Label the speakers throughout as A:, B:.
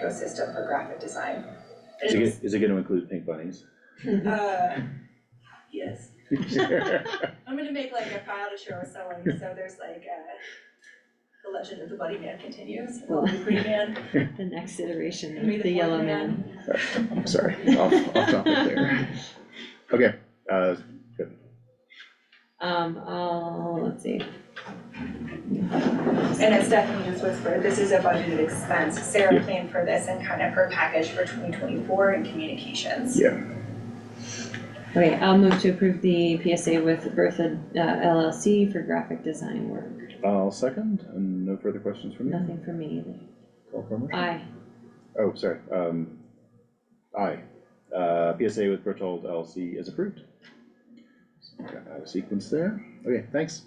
A: ecosystem for graphic design.
B: Is it, gonna- is it gonna include pink bunnies?
A: Uh, yes, I'm gonna make like a file to share with someone, so there's like, uh, the legend of the Buddy Man continues,
C: Cool.
A: the Green Man,
C: The next iteration
A: maybe
C: of
A: the
C: the yellow
A: Fourth
C: man.
B: I'm sorry, off, off topic there. Okay, uh,
C: Um, I'll, let's see,
A: And as Stephanie just whispered, this is a budgeted expense, Sarah
B: Yeah.
A: planned for this and kind of her package for twenty twenty-four in communications.
B: yeah,
C: okay, I'll move to approve the PSA with Bertha uh, LLC for graphic design work.
B: I'll second, and no further questions from you?
C: Nothing for me either.
B: Call for a motion?
C: Aye,
B: Oh, sorry, um, aye, uh, PSA with Berthold LLC is approved. So we Got out of sequence there, okay, thanks.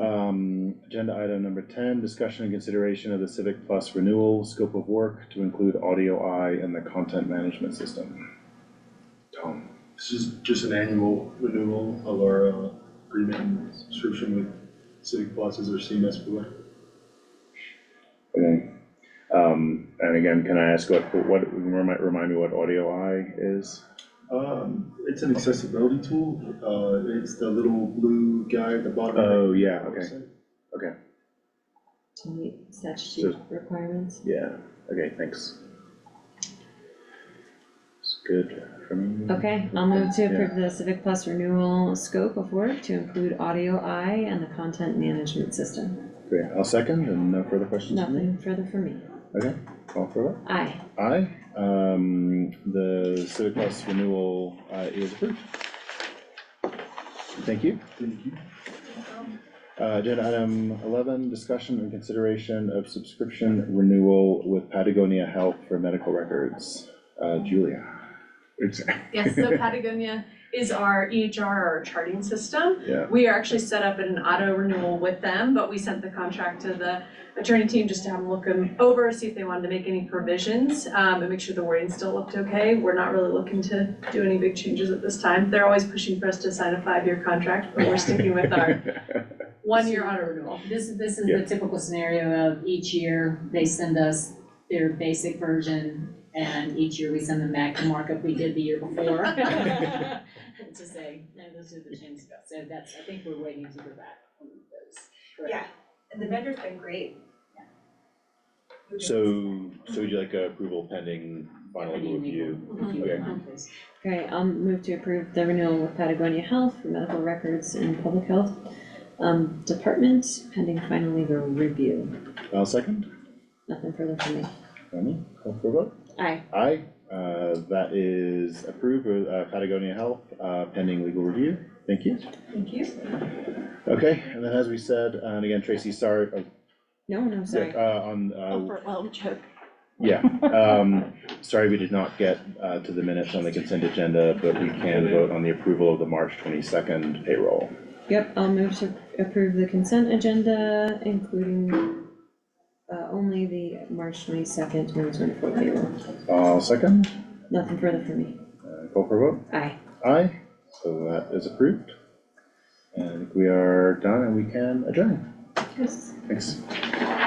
B: Um, agenda item number ten, discussion and consideration of the Civic Plus renewal scope of work to include audio I and the content management system. Tom,
D: This is just an annual renewal of our uh, agreement and subscription with Civic Plus as our CMS provider.
B: okay, um, and again, can I ask what, what, remind, remind me what audio I is?
D: Um, it's an accessibility tool, uh, it's the little blue guy at the bottom.
B: Oh,
D: right
B: yeah,
D: of the
B: okay.
D: website.
C: to meet statute requirements.
B: Yeah, okay, thanks. It's good for me.
C: Okay, I'll move to
B: Yeah.
C: approve the Civic Plus renewal scope of work to include audio I and the content management system.
B: Great, I'll second, and no further questions from me?
C: Nothing further for me.
B: Okay, call for it.
C: Aye.
B: Aye, um, the Civic Plus renewal, uh, is approved. Thank you.
D: Thank you.
B: Uh, agenda item eleven, discussion and consideration of subscription renewal with Patagonia Health for medical records. Uh, Julia. It's-
E: Yes, so Patagonia is our EHR, our charting system.
B: Yeah,
E: We are actually set up in an auto renewal with them, but we sent the contract to the attorney team just to have them look them over, see if they wanted to make any provisions, um, and make sure the wording still looked okay. We're not really looking to do any big changes at this time. They're always pushing for us to sign a five-year contract, but we're sticking with our one-year auto renewal.
F: This, this is
B: Yeah.
F: the typical scenario of each year, they send us their basic version, and each year we send them back the markup we did the year before. To say, no, those are the changes, so that's, I think we're waiting to go back on those. correct?
A: Yeah, and the vendor's been great. We've been-
B: so, so would you like approval pending final
F: Pretty
B: review?
F: legal, if you
B: Okay.
F: want, please.
C: Okay, I'll move to approve the renewal with Patagonia Health for medical records and public health um, department pending final legal review.
B: I'll second.
C: Nothing further from me.
B: Remy, call for a vote?
C: Aye.
B: Aye, uh, that is approved, uh, Patagonia Health, uh, pending legal review, thank you.
A: Thank you.
B: Okay, and then as we said, uh, and again, Tracy, sorry, uh,
C: No, no, sorry.
B: uh, on, uh,
G: overwhelmed joke.
B: yeah, um, sorry, we did not get, uh, to the minutes on the consent agenda, but we can vote on the approval of the March twenty-second payroll.
C: Yep, I'll move to approve the consent agenda, including uh, only the March twenty-second, twenty twenty-four payroll.
B: I'll Uh, second,
C: Nothing further from me.
B: uh, call for a vote?
C: Aye.
B: Aye, so that is approved. And we are done and we can adjourn,
C: Yes.
B: thanks.